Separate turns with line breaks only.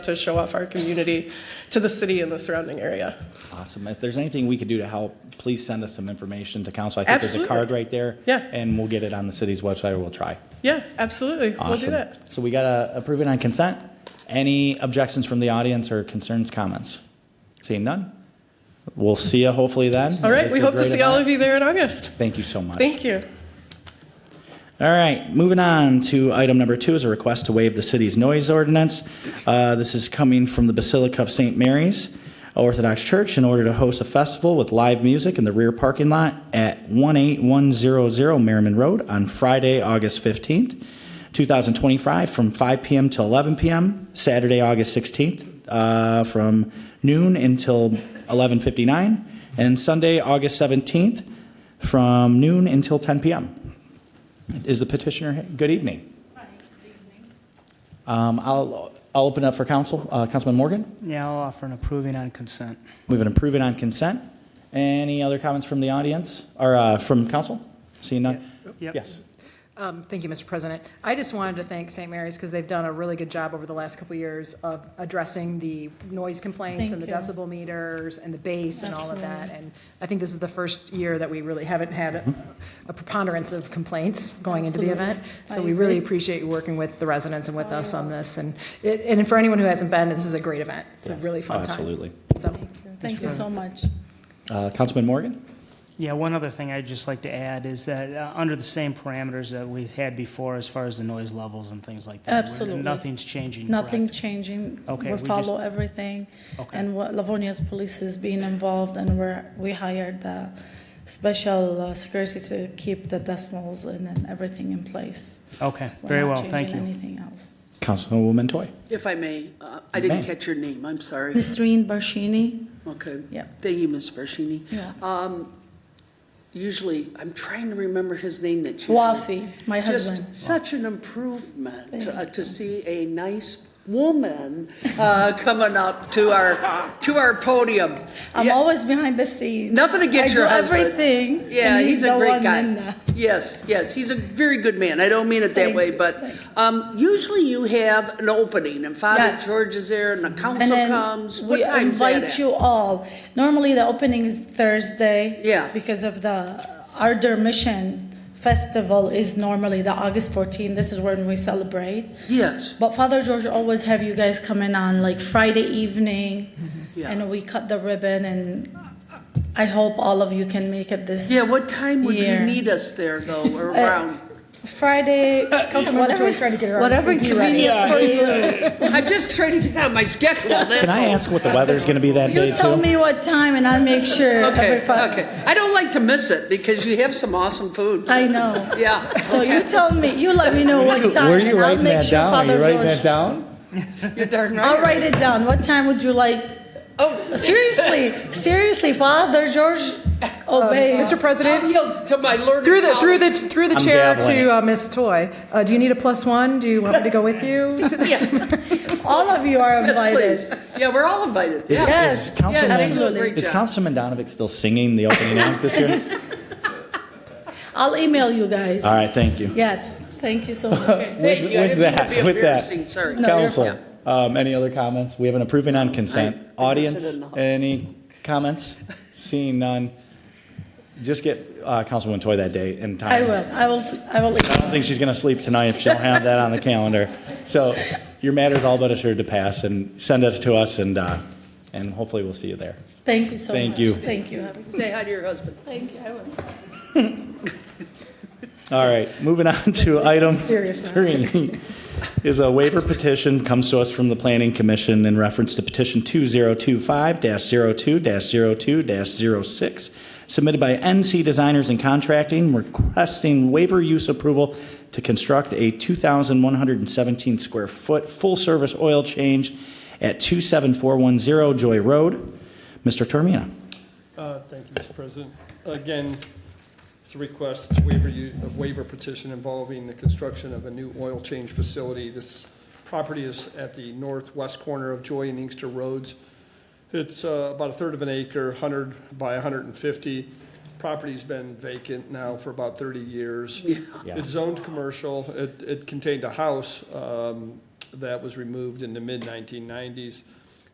to show off our community to the city and the surrounding area.
Awesome. If there's anything we could do to help, please send us some information to council. I think there's a
Absolutely.
card right there.
Yeah.
And we'll get it on the city's website or we'll try.
Yeah, absolutely. We'll do
Awesome.
that.
So we got to approve it on consent. Any objections from the audience or concerns, comments? Seeing none? We'll see you hopefully then.
All right, we hope to see all of
you.
you there in August.
Thank you so much.
Thank you.
All right, moving on to item number two is a request to waive the city's noise ordinance. Uh, This is coming from the Basilica of St. Mary's Orthodox Church in order to host a festival with live music in the rear parking lot at 18100 Merriman Road on Friday, August 15th, 2025, from 5 PM to 11 PM, Saturday, August 16th, uh, from noon until 11:59, and Sunday, August 17th, from noon until 10 PM. Is the petitioner, here? good evening. Um, I'll, I'll open up for council. Uh, Councilman Morgan,
Yeah, I'll offer an approving on consent.
we've been approving on consent. Any other comments from the audience or uh, from council? Seeing none?
Yep.
Yes.
Um, Thank you, Mr. President. I just wanted to thank St. Mary's because they've done a really good job over the last couple of years of addressing the noise complaints and the decibel meters and the bass and all of that. And I think this is the first year that we really haven't had a- a preponderance of complaints going into the event. So we really appreciate you working with the residents and with us on this. And it, and for anyone who hasn't been, this is a great event. It's a really
Oh,
fun time.
Absolutely.
So,
Thank you so much.
Uh, Councilman Morgan?
Yeah, one other thing I'd just like to add is that, uh, under the same parameters that we've had before as far as the noise levels and things like that. we're-
Absolutely.
Nothing's changing, correct?
Nothing changing.
Okay,
We
we
follow everything.
Okay.
And what Livonia's police is being involved and we're, we hired the special uh, security to keep the decimals and then everything in place.
Okay,
We're
very
not
well, thank
changing
you.
Anything else.
Councilwoman Toy.
If I may, uh, I
You
didn't
may.
catch your name, I'm sorry.
Nisreen Barshini,
Okay.
Yeah.
Thank you, Ms. Barshini.
Yeah.
Um, Usually, I'm trying to remember his name that you.
Wafi, my husband.
Just such an improvement
Thank
uh, to see a nice woman uh, coming up to our, to our podium.
I'm
Yeah,
always behind the scenes.
Nothing against your husband.
I do everything.
Yeah,
and
he's a
the
great
one
guy.
in
Yes, yes, he's a very good man. I don't mean it that
Thank
way,
you,
but
thank
um, usually you have an opening and Father
Yes.
George is there and the
And
council
then
comes. What
we
time's that
invite
at?
you all. Normally, the opening is Thursday.
Yeah.
Because of the Ardor Mission Festival is normally the August 14. This is when we celebrate.
Yes.
But Father George always have you guys come in on like Friday evening,
Mm-hmm. Yeah.
and we cut the ribbon. And I hope all of you can make it this
Yeah, what time would you
Here.
need us there though, or around?
Friday. whatever,
Joy's trying to get her on
whatever convenient for you.
I'm just trying to get on my schedule, that's
Can I
all.
ask what the weather's going to be that day
You tell
too?
me what time, and I'll make sure.
Okay,
every Fri-
okay. I don't like to miss it because you have some awesome food.
I know.
Yeah.
So you tell me, you let me know what time.
Were you
and I'll
writing
make
that
sure
down? Are
Father
you writing
George-
that down?
You're darn right.
I'll write it down. What time would you like?
Oh,
Seriously, seriously, Father George obeys.
Oh, Mr. President?
I'll yield to my learned
Through the, through the,
colleagues.
through the
I'm
chair
dabbling.
to uh, Ms. Toy, Uh, do you need a plus one? Do you want me to go with you? to this?
All of you are
Yes, please.
invited.
Yeah, we're all invited.
Is-
Yeah.
Yes,
is
yes,
Councilman-
absolutely.
Is Councilman Donovic still singing the opening act this year?
I'll email you guys.
All right, thank you.
Yes, thank you so much.
Thank
With-
you.
with
I didn't mean to
that-
be
with that.
embarrassing, sorry.
No, you're
Council,
fine.
um, any other comments? We have an approving on consent.
I- I
Audience,
said enough.
any comments? Seeing none. Just get uh, Councilwoman Toy that date and time.
I will, I will, I will.
I don't think she's going to sleep tonight if she don't have that on the calendar. So your matter's all but assured to pass and send it to us and, uh, and hopefully we'll see you there.
Thank you so much.
Thank you.
Thank you.
Say hi to your husband.
Thank you, I will.
All right, moving on to item
Serious now.
three. Is a waiver petition comes to us from the Planning Commission in reference to petition 2025-02-02-06 submitted by NC Designers and Contracting requesting waiver use approval to construct a 2,117 square foot full-service oil change at 27410 Joy Road. Mr. Termina.
Uh, Thank you, Mr. President. Again, it's a request, it's a waiver, u- a waiver petition involving the construction of a new oil change facility. This property is at the northwest corner of Joy and Inkster Roads. It's uh, about a third of an acre, 100 by 150. Property's been vacant now for about 30 years.
Yeah.
It's zoned commercial. It, it contained a house, um, that was removed in the mid-1990s.